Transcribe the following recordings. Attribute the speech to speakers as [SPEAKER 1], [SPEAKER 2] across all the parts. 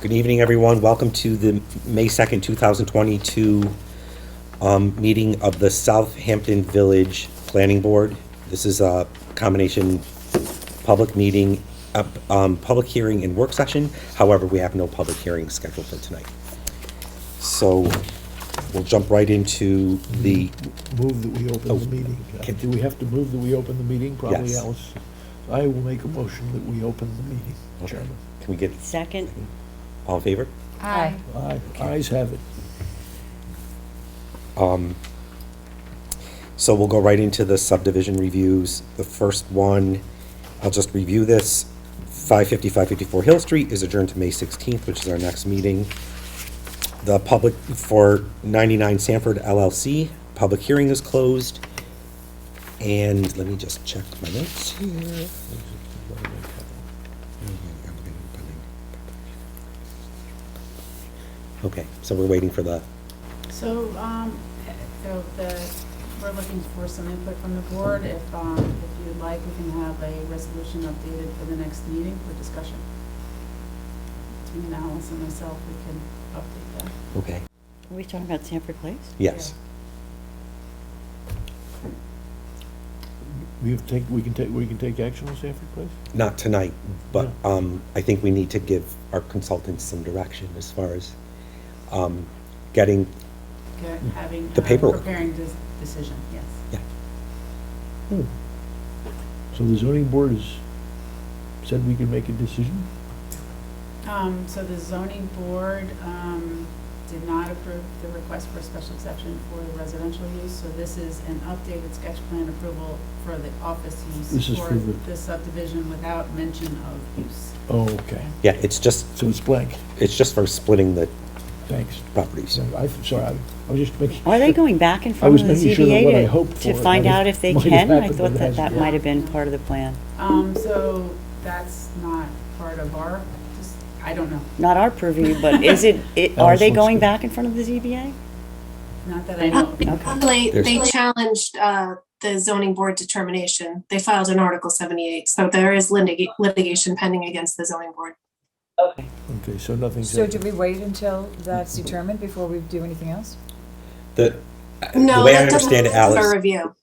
[SPEAKER 1] Good evening, everyone. Welcome to the May 2nd, 2022 um, meeting of the Southampton Village Planning Board. This is a combination public meeting, uh, um, public hearing and work session. However, we have no public hearing scheduled for tonight. So we'll jump right into the,
[SPEAKER 2] Move that we open the meeting.
[SPEAKER 1] can-
[SPEAKER 2] Do we have to move that we open the meeting? Probably
[SPEAKER 1] Yes.
[SPEAKER 2] Alice. I will make a motion that we open the meeting, Chairman.
[SPEAKER 1] can we get,
[SPEAKER 3] Second?
[SPEAKER 1] all in favor?
[SPEAKER 4] Aye.
[SPEAKER 2] Aye, ayes have it.
[SPEAKER 1] So we'll go right into the subdivision reviews. The first one, I'll just review this. 550, 554 Hill Street is adjourned to May 16th, which is our next meeting. The public for 99 Sanford LLC, public hearing is closed. And let me just check my notes here. Okay, so we're waiting for the,
[SPEAKER 4] So, um, so the, we're looking for some input from the board. If, um, if you'd like, we can have a resolution updated for the next meeting for discussion. Between Alice and myself, we can update that.
[SPEAKER 1] okay,
[SPEAKER 3] Are we talking about Sanford Place?
[SPEAKER 1] yes.
[SPEAKER 2] We have take, we can take, we can take action on Sanford Place?
[SPEAKER 1] not tonight, but um, I think we need to give our consultants some direction as far as um, getting,
[SPEAKER 4] Get- Having.
[SPEAKER 1] The
[SPEAKER 4] uh,
[SPEAKER 1] paperwork.
[SPEAKER 4] Preparing this decision, yes.
[SPEAKER 1] yeah,
[SPEAKER 2] Hmm. So the zoning board has said we can make a decision?
[SPEAKER 4] Um, so the zoning board, um, did not approve the request for a special exception for the residential use, so this is an updated sketch plan approval for the office
[SPEAKER 2] This
[SPEAKER 4] use
[SPEAKER 2] is
[SPEAKER 4] for
[SPEAKER 2] for the-
[SPEAKER 4] the subdivision without mention of use.
[SPEAKER 2] Oh, okay.
[SPEAKER 1] yeah, it's just,
[SPEAKER 2] So it's blank.
[SPEAKER 1] it's just for splitting the
[SPEAKER 2] Thanks.
[SPEAKER 1] properties.
[SPEAKER 2] So I, sorry, I I was just making.
[SPEAKER 3] Are they going back and
[SPEAKER 2] I
[SPEAKER 3] forth
[SPEAKER 2] was
[SPEAKER 3] with the
[SPEAKER 2] making sure that what I
[SPEAKER 3] ZBA
[SPEAKER 2] hoped
[SPEAKER 3] to-
[SPEAKER 2] for
[SPEAKER 3] to find
[SPEAKER 2] might have-
[SPEAKER 3] out if they
[SPEAKER 2] might have
[SPEAKER 3] can? I
[SPEAKER 2] happened,
[SPEAKER 3] thought
[SPEAKER 2] but it
[SPEAKER 3] that that
[SPEAKER 2] hasn't.
[SPEAKER 3] might have been part of the plan.
[SPEAKER 4] Um, so that's not part of our, just, I don't know,
[SPEAKER 3] Not our purview, but is it, it- are
[SPEAKER 2] Alice
[SPEAKER 3] they
[SPEAKER 2] looks
[SPEAKER 3] going
[SPEAKER 2] good.
[SPEAKER 3] back in front of the ZBA?
[SPEAKER 4] not that I know. of.
[SPEAKER 5] They,
[SPEAKER 1] There's-
[SPEAKER 5] they challenged uh, the zoning board determination. They filed an Article 78, so there is litig- litigation pending against the zoning board.
[SPEAKER 2] Okay, so nothing's.
[SPEAKER 6] So do we wait until that's determined before we do anything else?
[SPEAKER 1] The, Uh, the
[SPEAKER 5] No,
[SPEAKER 1] way I
[SPEAKER 5] that doesn't
[SPEAKER 1] understand it,
[SPEAKER 5] close our
[SPEAKER 1] Alice,
[SPEAKER 5] review.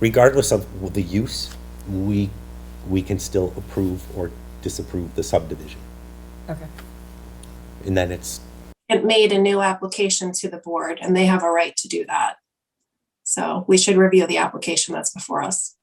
[SPEAKER 1] regardless of the use, we, we can still approve or disapprove the subdivision.
[SPEAKER 6] Okay.
[SPEAKER 1] And then it's,
[SPEAKER 5] It made a new application to the board, and they have a right to do that. So we should review the application that's before us.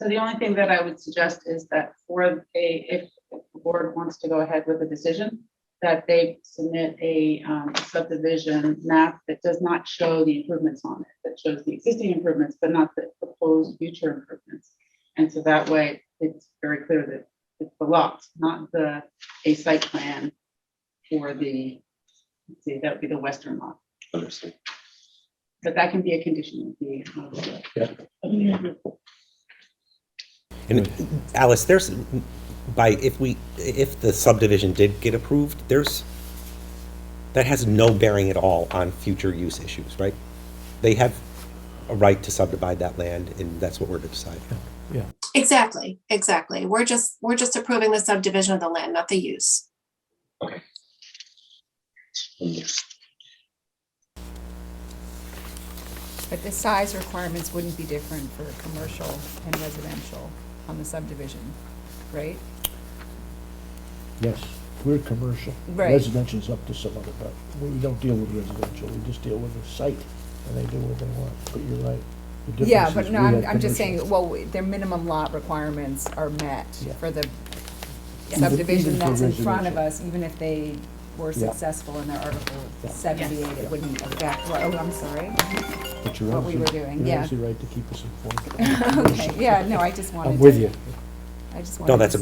[SPEAKER 4] So the only thing that I would suggest is that for a, if the board wants to go ahead with a decision, that they submit a um, subdivision map that does not show the improvements on it, that shows the existing improvements, but not the proposed future improvements. And so that way, it's very clear that it's the lot, not the, a site plan for the, let's see, that would be the western lot.
[SPEAKER 1] understood.
[SPEAKER 4] But that can be a condition of the.
[SPEAKER 2] Yeah.
[SPEAKER 4] Yeah.
[SPEAKER 1] And Alice, there's, by, if we, if the subdivision did get approved, there's, that has no bearing at all on future use issues, right? They have a right to subdivide that land, and that's what we're deciding.
[SPEAKER 5] Exactly, exactly. We're just, we're just approving the subdivision of the land, not the use.
[SPEAKER 7] But the size requirements wouldn't be different for commercial and residential on the subdivision, right?
[SPEAKER 2] Yes, we're commercial.
[SPEAKER 7] Right.
[SPEAKER 2] Residential's up to some other, but we don't deal with residential, we just deal with the site, and they do what they want, but you're right. The
[SPEAKER 7] Yeah,
[SPEAKER 2] difference
[SPEAKER 7] but
[SPEAKER 2] is
[SPEAKER 7] no,
[SPEAKER 2] we
[SPEAKER 7] I'm,
[SPEAKER 2] have
[SPEAKER 7] I'm just
[SPEAKER 2] commercial.
[SPEAKER 7] saying, well, their minimum lot requirements are met
[SPEAKER 2] Yeah.
[SPEAKER 7] for the
[SPEAKER 2] Even-
[SPEAKER 7] subdivision
[SPEAKER 2] even for
[SPEAKER 7] that's in front of
[SPEAKER 2] residential.
[SPEAKER 7] us, even if they were
[SPEAKER 2] Yeah.
[SPEAKER 7] successful in their Article
[SPEAKER 2] Yeah.
[SPEAKER 7] seventy-eight, it wouldn't affect, oh, I'm sorry.
[SPEAKER 2] But you're
[SPEAKER 7] what we
[SPEAKER 2] obviously-
[SPEAKER 7] were doing,
[SPEAKER 2] You're
[SPEAKER 7] yeah.
[SPEAKER 2] obviously right to keep us informed.
[SPEAKER 7] Okay, yeah, no, I just wanted to.
[SPEAKER 2] I'm with you.
[SPEAKER 7] I just wanted
[SPEAKER 1] No,
[SPEAKER 7] to
[SPEAKER 1] that's a